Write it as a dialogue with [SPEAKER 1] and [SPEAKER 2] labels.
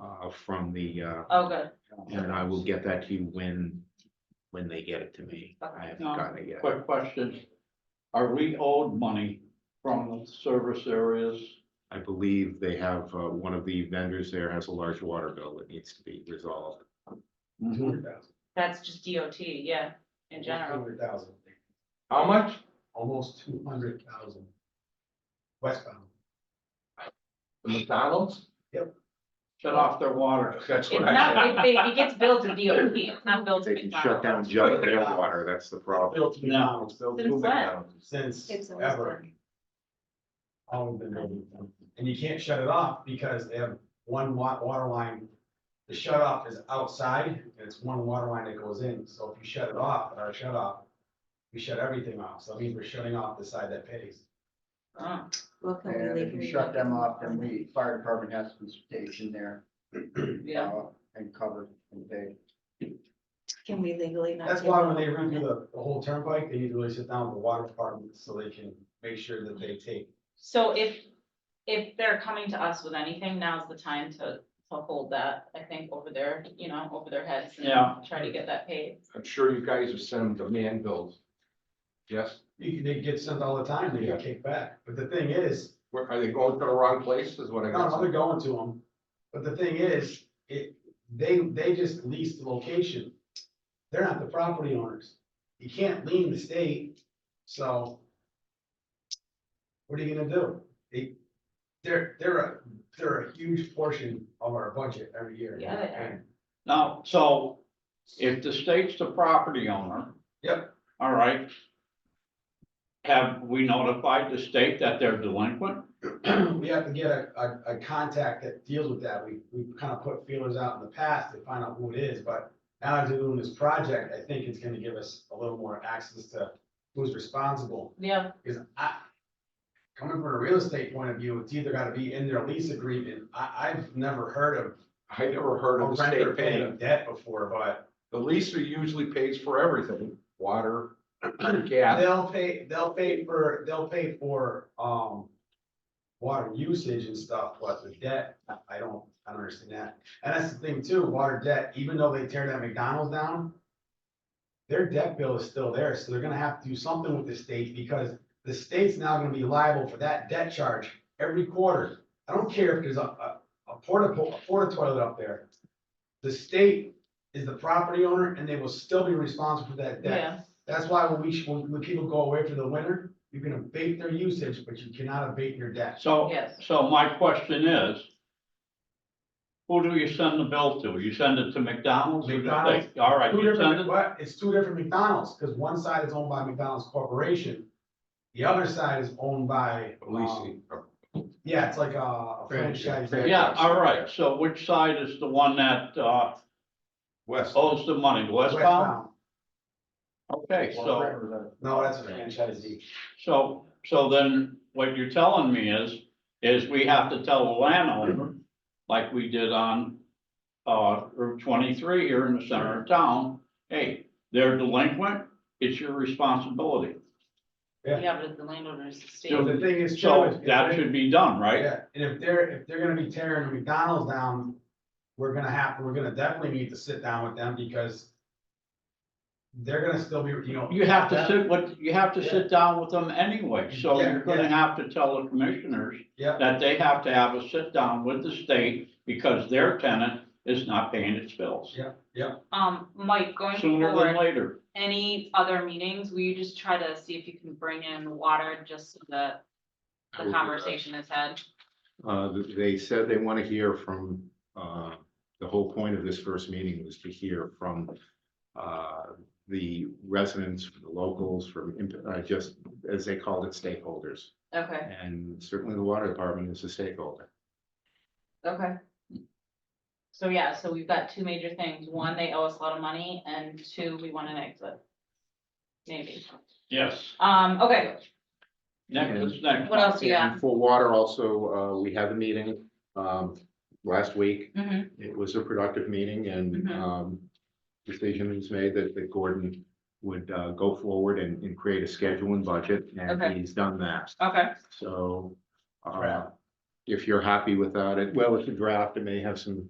[SPEAKER 1] uh, from the, uh,
[SPEAKER 2] Oh, good.
[SPEAKER 1] and I will get that to you when, when they get it to me. I haven't gotten it yet.
[SPEAKER 3] Quick question. Are we owed money from the service areas?
[SPEAKER 1] I believe they have, uh, one of the vendors there has a large water bill that needs to be resolved. Mm-hmm.
[SPEAKER 2] That's just DOT, yeah, in general.
[SPEAKER 4] Hundred thousand,
[SPEAKER 3] How much?
[SPEAKER 4] almost two hundred thousand. Westbound.
[SPEAKER 3] The McDonald's?
[SPEAKER 4] Yep.
[SPEAKER 3] Shut off their water. That's
[SPEAKER 2] It's not, it, it gets billed to DOT, it's not billed to
[SPEAKER 1] They can shut
[SPEAKER 2] McDonald's.
[SPEAKER 1] down just their water, that's the problem.
[SPEAKER 4] Built now,
[SPEAKER 2] Since when?
[SPEAKER 4] since
[SPEAKER 5] It's always
[SPEAKER 4] ever.
[SPEAKER 5] been.
[SPEAKER 4] All of them, built. and you can't shut it off because they have one wa- water line. The shut off is outside, and it's one water line that goes in, so if you shut it off, at our shut off. We shut everything off, so that means we're shutting off the side that pays.
[SPEAKER 2] Oh,
[SPEAKER 5] Look, I'm
[SPEAKER 6] And if
[SPEAKER 5] leaving
[SPEAKER 6] you
[SPEAKER 5] it
[SPEAKER 6] shut them
[SPEAKER 5] open.
[SPEAKER 6] off, then the fire department has to station there.
[SPEAKER 2] Yeah.
[SPEAKER 6] uh, And covered and paid.
[SPEAKER 5] Can we legally not?
[SPEAKER 4] That's
[SPEAKER 5] give
[SPEAKER 4] why
[SPEAKER 5] them
[SPEAKER 4] when they
[SPEAKER 5] open
[SPEAKER 4] run through
[SPEAKER 5] it?
[SPEAKER 4] the, the whole turnpike, they usually sit down with the water department so they can make sure that they take.
[SPEAKER 2] So if, if they're coming to us with anything, now's the time to, to hold that, I think, over their, you know, over their heads. and
[SPEAKER 3] Yeah.
[SPEAKER 2] Try to get that paid.
[SPEAKER 7] I'm sure you guys have sent them demand bills. Yes,
[SPEAKER 4] You, they get sent all the time, they get kicked back, but the thing is,
[SPEAKER 7] where, are they going to the wrong place is what I
[SPEAKER 4] No,
[SPEAKER 7] got.
[SPEAKER 4] no, they're going to them, but the thing is, it, they, they just lease the location. They're not the property owners, you can't lean the state, so. What are you gonna do? They, they're, they're a, they're a huge portion of our budget every year.
[SPEAKER 2] Yeah, they are.
[SPEAKER 3] Now, so if the state's the property owner.
[SPEAKER 4] Yep.
[SPEAKER 3] All right. Have we notified the state that they're delinquent?
[SPEAKER 4] And We have to get a, a, a contact that deals with that, we, we kind of put feelers out in the past to find out who it is, but. Now that we're doing this project, I think it's gonna give us a little more access to who's responsible.
[SPEAKER 2] Yeah,
[SPEAKER 4] Because I, coming from a real estate point of view, it's either gotta be in their lease agreement, I, I've never heard of.
[SPEAKER 7] I never heard
[SPEAKER 4] a
[SPEAKER 7] of
[SPEAKER 6] Oh,
[SPEAKER 7] the
[SPEAKER 4] renter
[SPEAKER 7] state
[SPEAKER 4] paying a
[SPEAKER 7] paying.
[SPEAKER 4] debt before, but
[SPEAKER 7] The leaser usually pays for everything, water, gas.
[SPEAKER 4] they'll pay, they'll pay for, they'll pay for, um. Water usage and stuff, but the debt, I- I don't, I don't understand that, and that's the thing too, water debt, even though they tear that McDonald's down. Their debt bill is still there, so they're gonna have to do something with the state, because the state's now gonna be liable for that debt charge every quarter. I don't care if there's a, a, a porta, po- a porta toilet up there. The state is the property owner and they will still be responsible for that debt.
[SPEAKER 2] yeah,
[SPEAKER 4] That's why when we, when, when people go away for the winter, you can abate their usage, but you cannot abate your debt.
[SPEAKER 3] So,
[SPEAKER 2] yes.
[SPEAKER 3] so my question is. Who do you send the bill to? You send it to McDonald's? or the
[SPEAKER 4] McDonald's.
[SPEAKER 3] state? All right,
[SPEAKER 4] Two
[SPEAKER 3] you send
[SPEAKER 4] different,
[SPEAKER 3] it,
[SPEAKER 4] what, it's two different McDonald's, because one side is owned by McDonald's Corporation. The other side is owned by, um,
[SPEAKER 7] Leasing.
[SPEAKER 1] uh,
[SPEAKER 4] yeah, it's like a- a franchise.
[SPEAKER 7] Franchise.
[SPEAKER 3] yeah, all right, so which side is the one that, uh,
[SPEAKER 7] West.
[SPEAKER 1] Oh,
[SPEAKER 3] owes the money, westbound?
[SPEAKER 4] Westbound.
[SPEAKER 3] Okay, so,
[SPEAKER 4] No, that's a franchisee.
[SPEAKER 3] so, so then what you're telling me is, is we have to tell the
[SPEAKER 4] Mhm.
[SPEAKER 3] landowner, like we did on, uh, Route twenty-three here in the center of town, hey, they're delinquent, it's your responsibility.
[SPEAKER 4] yeah.
[SPEAKER 2] Yeah, but the landowner is the state.
[SPEAKER 4] So the thing is, Joe,
[SPEAKER 3] So
[SPEAKER 4] is
[SPEAKER 3] that should be done, right?
[SPEAKER 4] Yeah, and if they're, if they're gonna be tearing the McDonald's down, we're gonna have, we're gonna definitely need to sit down with them because they're gonna still be, you know.
[SPEAKER 3] You have to sit with, you have to sit down with them anyway, so
[SPEAKER 4] Yeah,
[SPEAKER 3] you're gonna have to tell the commissioners
[SPEAKER 4] Yeah,
[SPEAKER 3] that they have to have a sit down with the state because their tenant is not paying its bills.
[SPEAKER 2] Um, Mike, going
[SPEAKER 3] Sooner
[SPEAKER 2] forward,
[SPEAKER 3] than later.
[SPEAKER 2] any other meetings, will you just try to see if you can bring in water just so that
[SPEAKER 1] I will
[SPEAKER 2] the
[SPEAKER 1] do that.
[SPEAKER 2] conversation is had?
[SPEAKER 1] Uh, they said they want to hear from, uh, the whole point of this first meeting was to hear from, uh, the residents, from the locals, from, imp- uh, just, as they called it, stakeholders.
[SPEAKER 2] Okay,
[SPEAKER 1] And certainly the water department is a stakeholder.
[SPEAKER 2] okay. So yeah, so we've got two major things. One, they owe us a lot of money and two, we want an exit. Maybe.
[SPEAKER 3] Yes.
[SPEAKER 2] Um, okay,
[SPEAKER 3] Next, what's next.
[SPEAKER 2] what else do you have?
[SPEAKER 1] And for water also, uh, we had a meeting, um, last week.
[SPEAKER 2] Mhm.
[SPEAKER 1] It was a productive meeting and,
[SPEAKER 2] Mhm.
[SPEAKER 1] um, decision was made that, that Gordon would, uh, go forward and, and create a schedule and budget,
[SPEAKER 2] Okay.
[SPEAKER 1] and he's done that.
[SPEAKER 2] Okay,
[SPEAKER 1] So, um, uh,
[SPEAKER 4] Draft.
[SPEAKER 1] if you're happy without it, well, it's a draft, it may have some